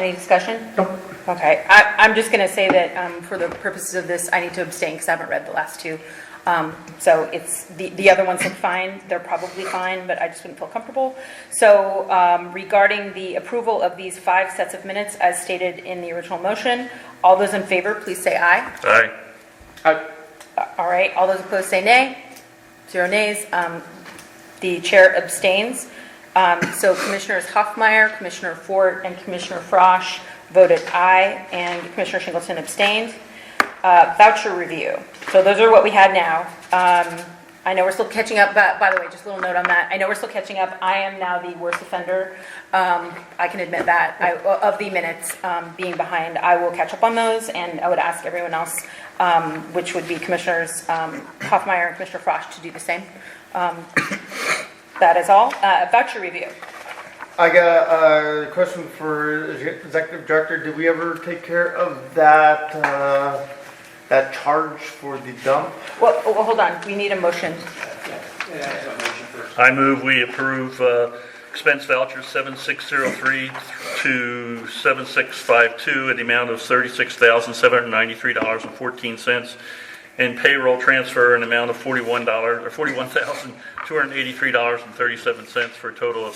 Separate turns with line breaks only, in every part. Any discussion?
Nope.
Okay, I, I'm just going to say that um, for the purposes of this, I need to abstain because I haven't read the last two. Um, So it's, the, the other ones look fine, they're probably fine, but I just wouldn't feel comfortable. So um, regarding the approval of these five sets of minutes as stated in the original motion, all those in favor, please say aye.
Aye.
I,
All right, all those opposed say nay. Zero nays. Um, The chair abstains. Um, So Commissioners Hoffmeyer, Commissioner Fort, and Commissioner Frosch voted aye, and Commissioner Singleton abstained. Uh, Voucher review. So those are what we had now. Um, I know we're still catching up, but by the way, just a little note on that. I know we're still catching up. I am now the worst offender. Um, I can admit that, I- of the minutes um, being behind. I will catch up on those, and I would ask everyone else, um, which would be Commissioners um, Hoffmeyer and Commissioner Frosch, to do the same. Um, That is all. Uh, Voucher review.
I got a question for executive director. Did we ever take care of that, uh, that charge for the dump?
Well, oh, well, hold on, we need a motion.
I move we approve uh, expense voucher 7603 to 7652 in the amount of $36,793.14 and payroll transfer in the amount of $41, or $41,283.37 for a total of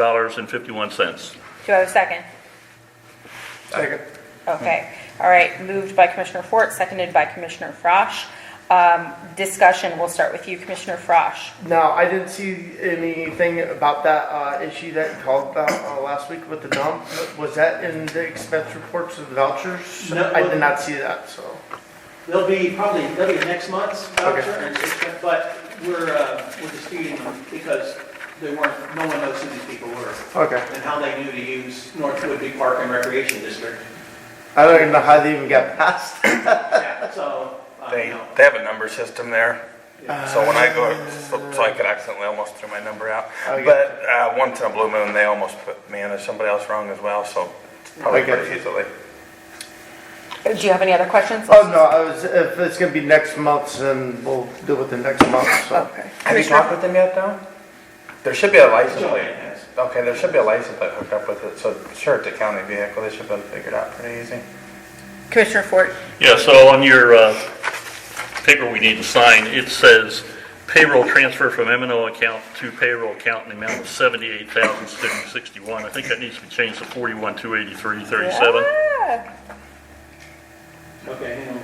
$78,076.51.
Do I have a second?
Second.
Okay, all right, moved by Commissioner Fort, seconded by Commissioner Frosch. Um, Discussion, we'll start with you, Commissioner Frosch.
Now, I didn't see anything about that, uh, issue that you called about, uh, last week with the dump. Was that in the expense reports of the vouchers?
No.
I did not see that, so.
They'll be probably, they'll be next month's
Okay.
voucher, and it's- but we're, uh, we're disputing them because they weren't, no one knows who these people were
Okay.
and how they knew to use Northwood Big Park and Recreation District.
I don't even know how they even got past.
Yeah, So, uh,
They,
you know,
they have a number system there, so when I go, so so I could accidentally almost throw my number out.
I got
But, uh, once in a blue moon, they almost put me and there's somebody else wrong as well, so it's probably
I got
pretty
you.
easily.
Uh, Do you have any other questions?
Oh, no, I was, if it's gonna be next month, then we'll deal with the next month, so.
Oh, Okay.
Have you talked with them yet, though? There should be a license
Joanne
plate.
has.
Okay, there should be a license plate hooked up with it, so sure, it's a county vehicle, they should be able to figure it out pretty easy.
Commissioner Fort,
Yeah, so on your uh, paper we need to sign, it says payroll transfer from m and O account to payroll account in the amount of $78,661. I think that needs to be changed to forty-one two eighty-three thirty-seven.
Yeah.
okay, hang on.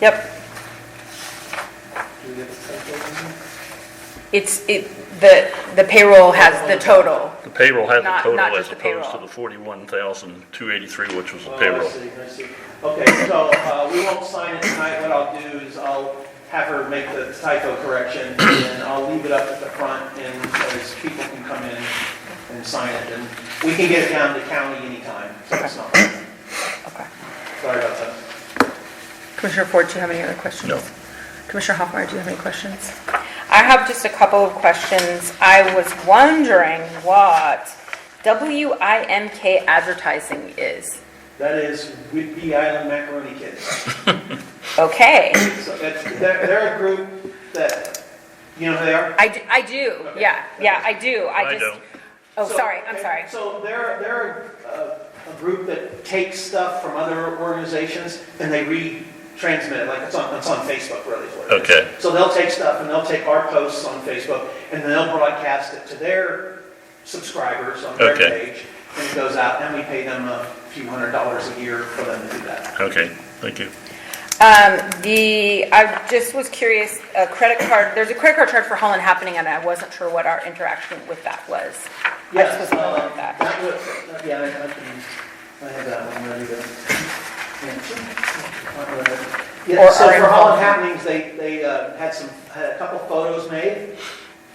Yep,
Do we get the stuff
it's, it, the, the payroll has the total.
The payroll has
Not-
a total
not
as
just the
opposed to
payroll.
the forty-one thousand two eighty-three, which was the
over? Oh, I
payroll.
see, I see. Okay, so, uh, we won't sign it tonight. What I'll do is I'll have her make the typo correction and I'll leave it up at the front and so as people can come in and sign it. And we can get it down to county anytime, so it's not,
Okay.
sorry about that.
Commissioner Ford, do you have any other questions?
No.
Commissioner Hoffmeyer, do you have any questions? I have just a couple of questions. I was wondering what WIMK advertising is.
That is Whidbey Island Macaroni Kids.
Okay,
So that's, they're, they're a group that, you know who they are?
I, d- I do,
Okay.
yeah, yeah, I do, I
I
just.
don't.
Oh,
So-
sorry, I'm sorry.
So they're, they're uh, a, a group that takes stuff from other organizations and they retransmit it, like it's on, it's on Facebook really. is what it is.
Okay.
So they'll take stuff and they'll take our posts on Facebook and then they'll broadcast it to their subscribers on their
Okay.
page. And it goes out and we pay them a few hundred dollars a year for them to do that.
Okay, thank you.
Um, the, I just was curious, a credit card, there's a credit card charge for Holland Happening, and I wasn't sure what our interaction with that was. I just was wondering
uh,
about that.
was- Yeah, I, I can, I have that one ready to. yeah. Uh,
Or
Yeah, so
our
for
involvement.
Holland Happenings, they, they uh, had some, had a couple photos made,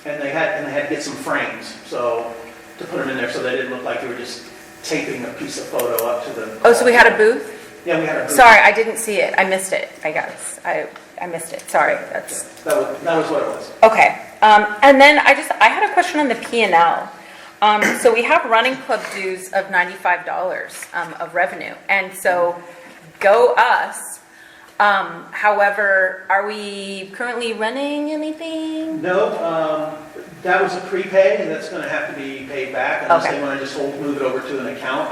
and they had, and they had to get some frames, so, to put them in there, so they didn't look like they were just taping a piece of photo up to the.
Oh, so we had a booth?
Yeah, we had a booth.
Sorry, I didn't see it. I missed it, I guess. I, I missed it, sorry. That's,
That was, that was what it was.
okay. Um, and then I just, I had a question on the P and L. Um, so we have running club dues of ninety-five dollars, um, of revenue. And so, go us. Um, however, are we currently running anything?
No, um, that was a prepay, and that's gonna have to be paid back unless
Okay.
they wanna just hold, move it over to an account.